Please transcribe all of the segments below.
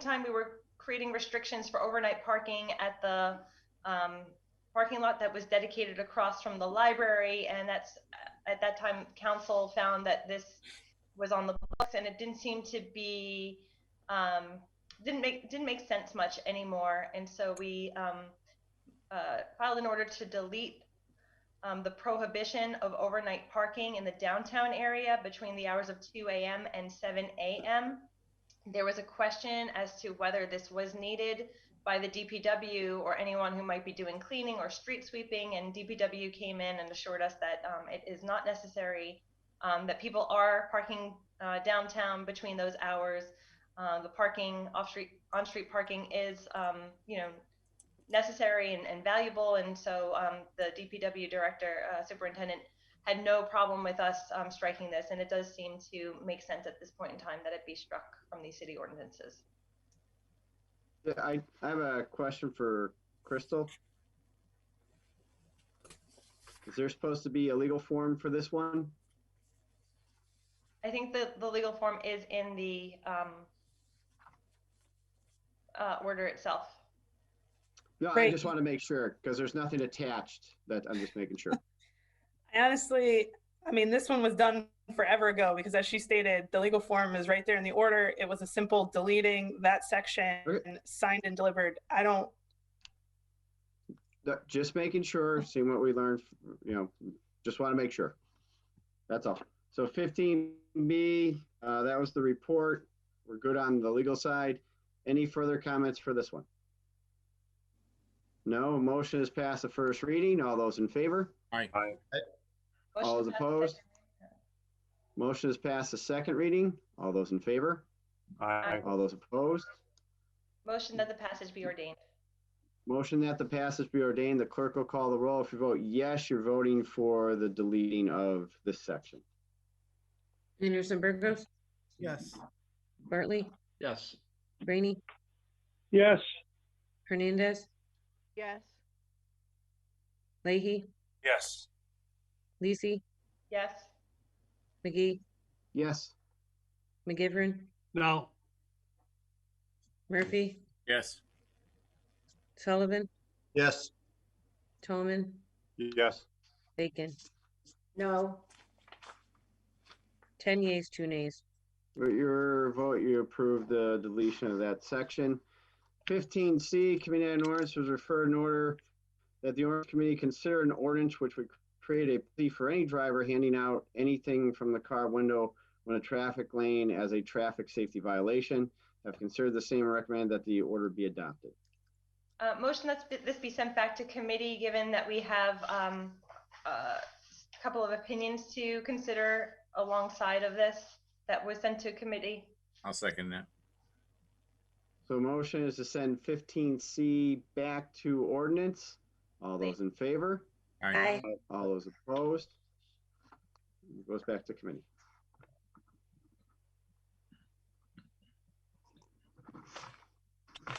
time, we were creating restrictions for overnight parking at the um, parking lot that was dedicated across from the library. And that's, uh, at that time, council found that this was on the books and it didn't seem to be, um, didn't make, didn't make sense much anymore. And so we um, uh, filed an order to delete um, the prohibition of overnight parking in the downtown area between the hours of 2 a.m. and 7 a.m. There was a question as to whether this was needed by the DPW or anyone who might be doing cleaning or street sweeping, and DPW came in and assured us that um, it is not necessary, um, that people are parking uh, downtown between those hours. Uh, the parking off street, on street parking is, um, you know, necessary and, and valuable. And so um, the DPW director, uh, superintendent, had no problem with us um, striking this. And it does seem to make sense at this point in time that it be struck from these city ordinances. Yeah, I, I have a question for Crystal. Is there supposed to be a legal form for this one? I think the, the legal form is in the um, uh, order itself. No, I Great. just want to make sure because there's nothing attached that I'm just making sure. I honestly, I mean, this one was done forever ago because as she stated, the legal form is right there in the order. It was a simple deleting that section, Okay. signed and delivered. I don't, No, Just making sure, seeing what we learned, you know, just want to make sure. That's all. So 15B, uh, that was the report. We're good on the legal side. Any further comments for this one? No, motion is passed the first reading. All those in favor? All Motion is to pass the second opposed? reading. Motion is passed the second reading. All those in favor? Aye. All those opposed? Motion that the passage be ordained. Motion that the passage be ordained. The clerk will call the roll. If you vote yes, you're voting for the deleting of this section. Anderson Burgos, Yes. Bartley, Yes. Brainy, Yes. Hernandez, Yes. Leahy, Yes. Lisi, Yes. McGee, Yes. McGivern, No. Murphy, Yes. Sullivan, Yes. Tolman, Yes. Bacon. No. Ten yeas, two nays. With your vote, you approve the deletion of that section. Fifteen C, committee on ordinance was referred in order that the ordinance committee consider an ordinance which would create a plea for any driver handing out anything from the car window when a traffic lane as a traffic safety violation. Have considered the same and recommend that the order be adopted. Uh, motion that this be sent back to committee, given that we have um, a couple of opinions to consider alongside of this that was sent to committee. I'll second that. So motion is to send fifteen C back to ordinance. All those in favor? All Aye. right. All those opposed? It Goes back to committee.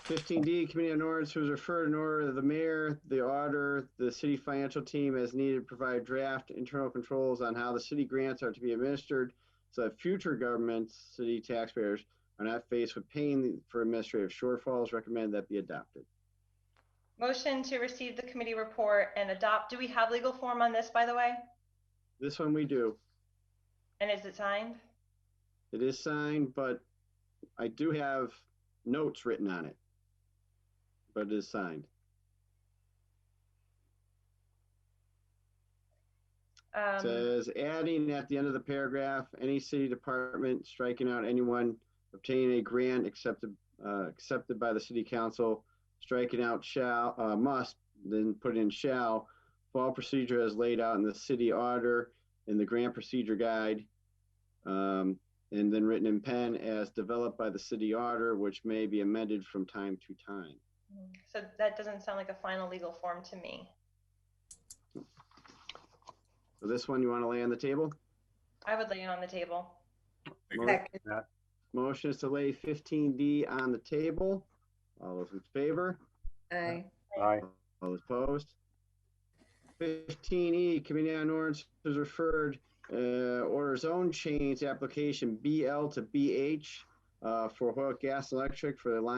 Fifteen D, Committee on Ordinance, who is referred in order to the mayor, the auditor, the city financial team as needed, provide draft internal controls on how the city grants are to be administered so that future governments, city taxpayers are not faced with paying for administrative shortfalls. Recommend that be adopted. Motion to receive the committee report and adopt. Do we have legal form on this, by the way? This one we do. And is it signed? It is signed, but I do have notes written on it. But it is signed. It Um, Says adding at the end of the paragraph, any city department striking out anyone obtaining a grant accepted, uh, accepted by the city council, striking out shall, uh, must, then put in shall, fall procedure as laid out in the city auditor and the grant procedure guide. Um, and then written in pen as developed by the city auditor, which may be amended from time to time. So that doesn't sound like a final legal form to me. So this one you want to lay on the table? I would lay it on the table. Mo- Motion is to lay fifteen D on the table. All those in favor? Aye. Aye. All those opposed? Fifteen E, Committee on Ordinance is referred, uh, order zone change application BL to BH uh, for Hoyok Gas and Electric for the Lime